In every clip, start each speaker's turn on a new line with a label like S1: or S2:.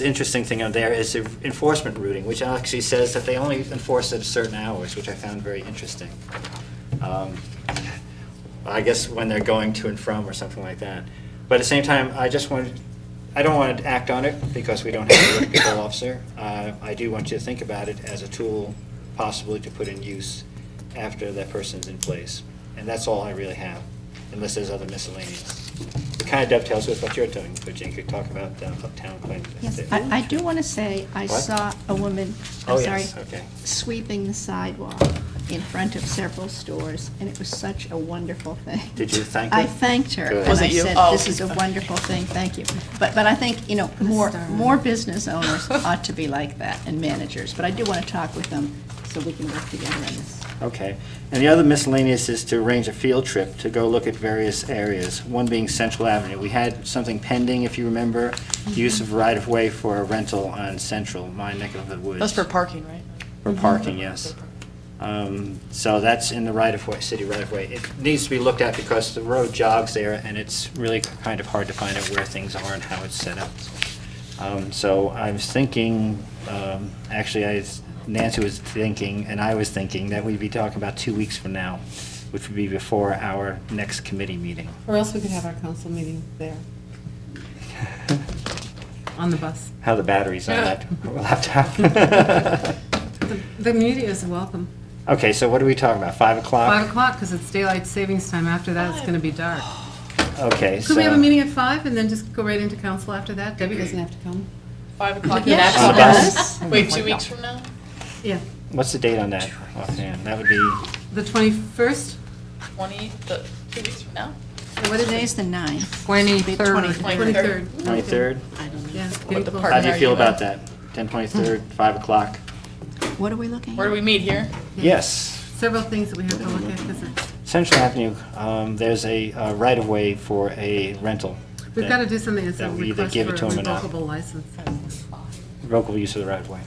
S1: The interesting thing out there is the enforcement routing, which actually says that they only enforce at certain hours, which I found very interesting. Um, I guess when they're going to and from or something like that. But at the same time, I just want, I don't want to act on it because we don't have a liquor control officer. Uh, I do want you to think about it as a tool possibly to put in use after that person's in place. And that's all I really have, unless there's other miscellaneous. It kind of dovetails with what you're doing, but Jane could talk about uh, uptown claim.
S2: Yes, I, I do want to say, I
S1: What?
S2: saw a woman,
S1: Oh,
S2: I'm sorry,
S1: yes, okay.
S2: sweeping the sidewalk in front of several stores, and it was such a wonderful thing.
S1: Did you thank
S2: I
S1: her?
S2: thanked her.
S1: Good.
S2: and
S1: Was
S2: I
S3: it you?
S2: said,
S3: Oh.
S2: this is a wonderful thing, thank you. But, but I think, you know, more, more business owners ought to be like that, and managers. But I do want to talk with them, so we can work together on this.
S1: Okay. And the other miscellaneous is to arrange a field trip to go look at various areas, one being Central Avenue. We had something pending, if you remember, the use of right-of-way for a rental on Central, my neck of the woods.
S3: That's for parking, right?
S1: For parking, yes. Um, So that's in the right-of-way, city right-of-way. It needs to be looked at because the road jogs there, and it's really kind of hard to find out where things are and how it's set up. Um, So I was thinking, um, actually, I was- Nancy was thinking, and I was thinking, that we'd be talking about two weeks from now, which would be before our next committee meeting.
S4: Or else we could have our council meeting there, on the bus.
S1: How the batteries on that laptop.
S4: The- The media is welcome.
S1: Okay, so what are we talking about, 5 o'clock?
S4: Five o'clock, because it's daylight savings time. After that, it's going to be dark.
S1: Okay, so...
S4: Could we have a meeting at five and then just go right into council after that? Debbie doesn't have to come.
S3: Five o'clock.
S2: Yeah.
S1: On the bus?
S3: Wait, two weeks from now?
S4: Yeah,
S1: What's the date on that? Offhand, that would be,
S4: the 21st?
S3: Twenty, the, two weeks from now?
S2: So what today is the ninth?
S3: Twenty-third.
S4: 23rd.
S1: 23rd?
S2: I don't know.
S4: Yeah.
S3: What the
S4: getting
S3: park-
S1: How
S4: close.
S1: do you
S3: Are
S1: feel
S3: you
S1: about
S3: up?
S1: that? 10, 23rd, 5 o'clock?
S2: What are we looking at?
S3: Where do we meet here?
S1: Yes.
S4: Several things that we have to look at, because it's,
S1: Central Avenue, um, there's a uh, right-of-way for a rental.
S4: we've got to do something, it's a
S1: That we either
S4: request
S1: give
S4: for
S1: it to
S4: a
S1: 'em or not.
S4: revocable license.
S1: Local use of the right-of-way.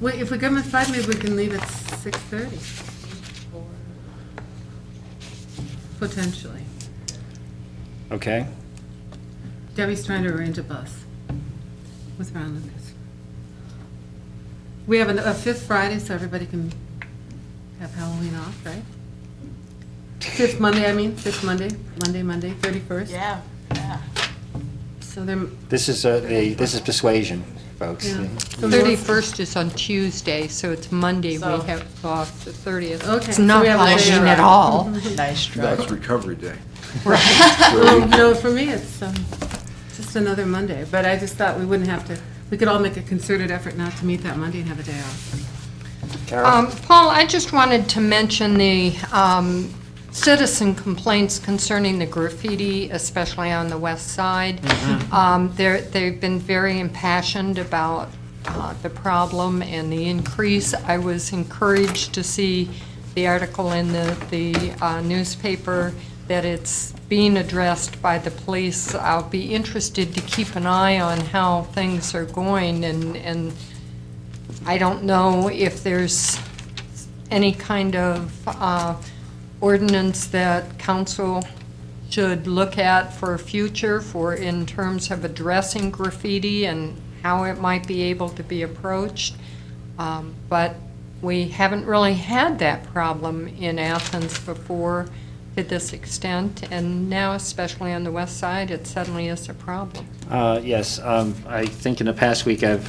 S4: Wait, if we go at five, maybe we can leave at 6:30, potentially.
S1: Okay?
S4: Debbie's trying to arrange a bus with Ron Lucas. We have an- a fifth Friday, so everybody can have Halloween off, right? Fifth Monday, I mean, fifth Monday, Monday, Monday, 31st.
S3: Yeah, yeah.
S4: So they're,
S1: This is, uh, the this is persuasion, folks.
S4: yeah. So we want-
S5: 31st is on Tuesday, so it's Monday we
S3: So-
S5: have off, the 30th.
S4: Okay.
S5: It's
S4: so we
S5: not
S4: have a day
S5: Halloween
S4: off.
S5: at all.
S3: Nice try.
S6: That's recovery day.
S4: Um, No, for me, it's um, just another Monday, but I just thought we wouldn't have to, we could all make a concerted effort not to meet that Monday and have a day off.
S1: Carol?
S5: Um, Paul, I just wanted to mention the um, citizen complaints concerning the graffiti, especially on the west side. Um, They're, they've been very impassioned about uh, the problem and the increase. I was encouraged to see the article in the, the uh, newspaper that it's being addressed by the police. I'll be interested to keep an eye on how things are going and, and I don't know if there's any kind of uh, ordinance that council should look at for future for, in terms of addressing graffiti and how it might be able to be approached. Um, But we haven't really had that problem in Athens before to this extent, and now especially on the west side, it suddenly is a problem.
S1: Uh, Yes, um, I think in the past week I've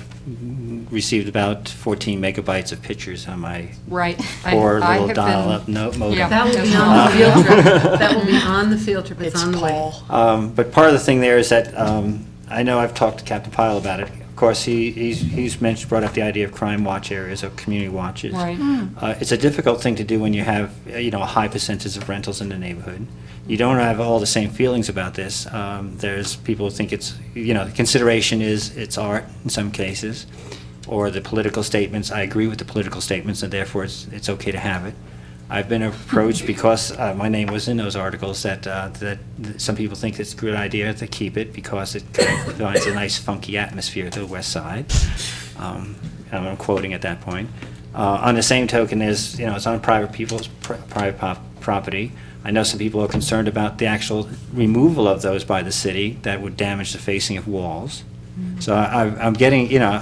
S1: received about 14 megabytes of pictures on my
S5: Right. I-
S1: poor
S5: I
S1: little
S5: have been-
S1: dial-up no- modem.
S5: Yeah.
S4: That will be
S5: That's
S4: on the
S5: awesome.
S4: field trip. That will be on the field trip, it's
S3: It's
S4: on the way.
S3: Paul.
S1: Um, But part of the thing there is that, um, I know I've talked to Captain Pyle about it. Of course, he, he's- he's mentioned, brought up the idea of crime watch areas or community watches.
S5: Right.
S1: Uh, It's a difficult thing to do when you have, uh, you know, a high percentage of rentals in the neighborhood. You don't have all the same feelings about this. Um, There's, people who think it's, you know, the consideration is it's art in some cases, or the political statements. I agree with the political statements, and therefore it's, it's okay to have it. I've been approached because uh, my name was in those articles that, uh, that that some people think it's a good idea to keep it because it kind of provides a nice funky atmosphere to the west side. Um, and I'm quoting at that point. Uh, On the same token, there's, you know, it's on private people's pri- private pop- property. I know some people are concerned about the actual removal of those by the city that would damage the facing of walls. So I, I'm getting, you know,